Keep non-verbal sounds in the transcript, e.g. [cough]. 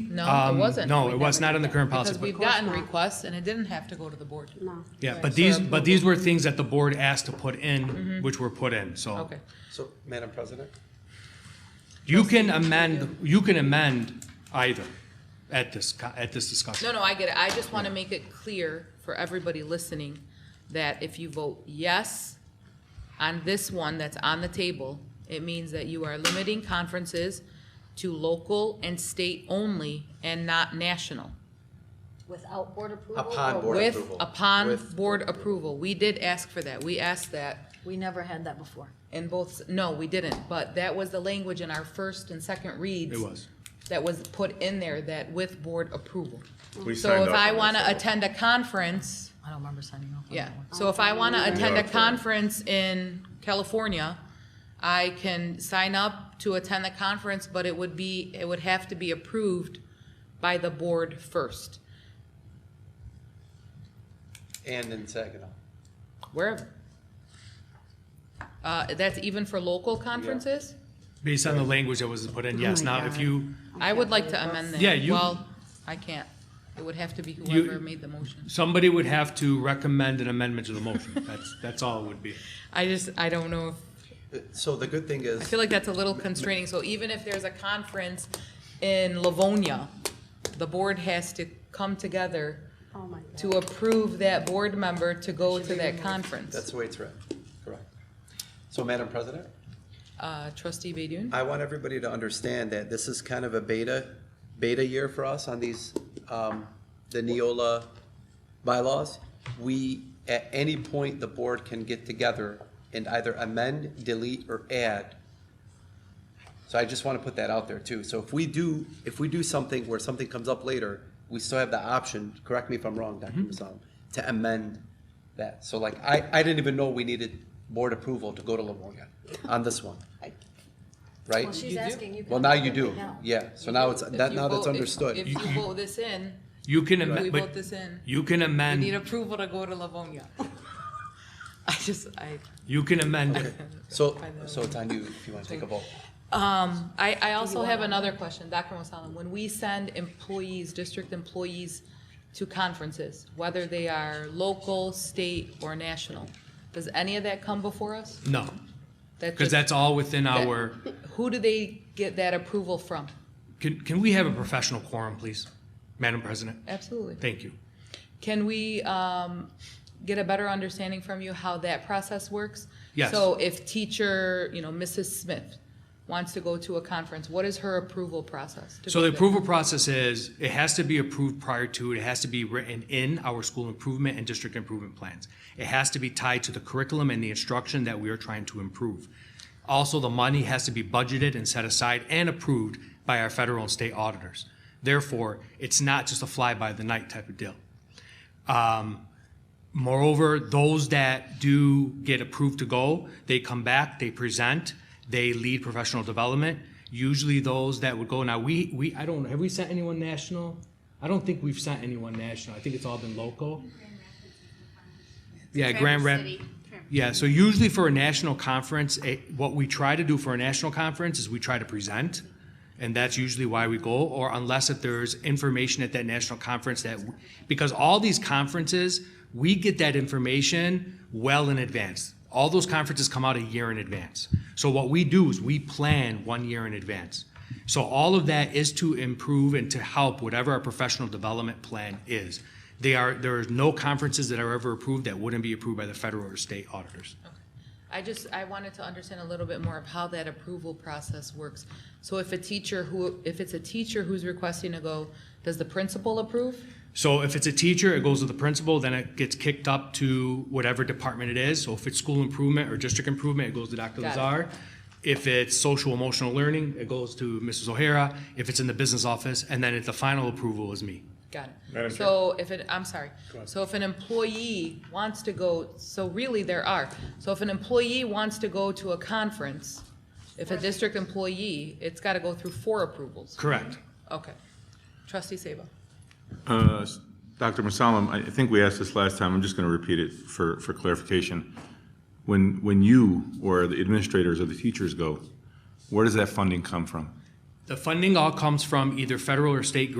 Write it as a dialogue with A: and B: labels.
A: No, it
B: Um,
A: wasn't.
B: no,
A: We
B: it was
A: never
B: not in the
A: did that,
B: current policy,
A: Because
B: but-
A: we've
B: Of
A: gotten requests and it didn't have to go to the board.
C: No.
B: Yeah,
A: Right.
B: but these,
A: For Mm-hmm.
B: but these were things that the board asked to put in, which were put in, so.
A: Okay.
D: So, Madam President?
B: You can amend, you can amend either at this, co- at this discussion.
A: No, no, I get it. I just want to make it clear for everybody listening that if you vote yes on this one that's on the table, it means that you are limiting conferences to local and state only and not national.
C: Without board approval? Oh,
D: Upon
C: or
D: board.
A: With,
D: approval.
A: upon
D: With
A: board approval. We did ask for that. We asked that
C: with- We never had that before.
A: in both, no, we didn't, but that was the language in our first and second reads.
B: It was.
A: that was put in there that with board approval.
E: We
A: So
E: signed
A: if
E: off
A: I
E: on
A: want to
E: this,
A: attend a conference,
C: I don't remember signing off on
A: yeah,
C: that one.
A: so if I want to attend a
E: for-
A: conference in California, I can sign up to attend the conference, but it would be, it would have to be approved by the board first,
D: And in Saginaw.
A: wherever. Uh, that's even for local conferences?
B: Based on the language that was put in, yes.
C: Oh my
B: Now, if
C: God.
B: you,
A: I would like to amend that.
B: Yeah, you-
A: Well, I can't. It would have to be whoever made the motion.
B: somebody would have to recommend an amendment to the motion. That's, that's all it would be.
A: I just, I don't know if
D: Uh, So the good thing
A: I
D: is,
A: feel like that's a little constraining, so even if there's a conference in Livonia, the board has to come together
C: Oh, my God.
A: to approve that board member to go to that
D: that's
A: conference.
D: the way it's written, correct. So, Madam President?
A: Uh, trustee Badun?
D: I want everybody to understand that this is kind of a beta, beta year for us on these, um, the Neola bylaws. We, at any point, the board can get together and either amend, delete, or add. So I just want to put that out there too. So if we do, if we do something where something comes up later, we still have the option, correct me if I'm wrong, Dr. Masan, to amend that. So like, I, I didn't even know we needed board approval to go to Livonia on this one. Right?
C: Well, she's asking you. can
D: Well, now you
C: approve it
D: do,
C: now.
D: yeah, so now it's,
A: If
D: that,
A: you
D: now that's
A: vote- if- If
D: understood.
A: you vote this in,
B: You can
A: we
B: amend,
A: vote
B: but Mm.
A: this in,
B: you can
A: you need
B: amend,
A: approval to go to Livonia. [laughs] I just, I,
B: you can amend it.
A: [laughs]
D: So, so it's on you if you want to take a vote.
A: um, I, I also have another question, Dr. Wasallam, when we send employees, district employees to conferences, whether they are local, state, or national, does any of that come before us?
B: No, because
A: just-
B: that's all within
A: that-
B: our,
A: Who do they get that approval from?
B: can, can we have a professional quorum, please? Madam President,
A: Absolutely.
B: thank you.
A: Can we um, get a better understanding from you how that process works?
B: Yes.
A: So if teacher, you know, Mrs. Smith wants to go to a conference, what is her approval process? to
B: So
A: go
B: the
A: to-
B: approval process is, it has to be approved prior to, it has to be written in our school improvement and district improvement plans. It has to be tied to the curriculum and the instruction that we are trying to improve. Also, the money has to be budgeted and set aside and approved by our federal and state auditors. Therefore, it's not just a fly-by-the-night type of deal. Moreover, those that do get approved to go, they come back, they present, they lead professional development. Usually those that would go, now we, we, I don't, have we sent anyone national? I don't think we've sent anyone national. I think it's all been local. Yeah, Grand Rap. Yeah, so usually for a national conference, eh, what we try to do for a national conference is we try to present. And that's usually why we go, or unless if there's information at that national conference that, w- because all these conferences, we get that information well in advance. All those conferences come out a year in advance. So what we do is we plan one year in advance. So all of that is to improve and to help whatever our professional development plan is. They are, there is no conferences that are ever approved that wouldn't be approved by the federal or state auditors.
A: I just, I wanted to understand a little bit more of how that approval process works. So if a teacher who, if it's a teacher who's requesting to go, does the principal approve?
B: So if it's a teacher, it goes to the principal, then it gets kicked up to whatever department it is. So if it's school improvement or district improvement, it goes to Dr.
A: Got it.
B: Lazar. If it's social emotional learning, it goes to Mrs. O'Hara. If it's in the business office, and then at the final approval is me.
A: Got it.
E: Madam
A: So if it, I'm sorry, so if an employee wants to go, so really there are. So if an employee wants to go to a conference, if a district employee, it's gotta go through four approvals.
B: Correct.
A: Okay. Trustee Sabo.
E: Uh, s- Dr. Masalam, I I think we asked this last time, I'm just going to repeat it for, for clarification. When, when you or the administrators or the teachers go, where does that funding come from?
B: The funding all comes from either federal or state grants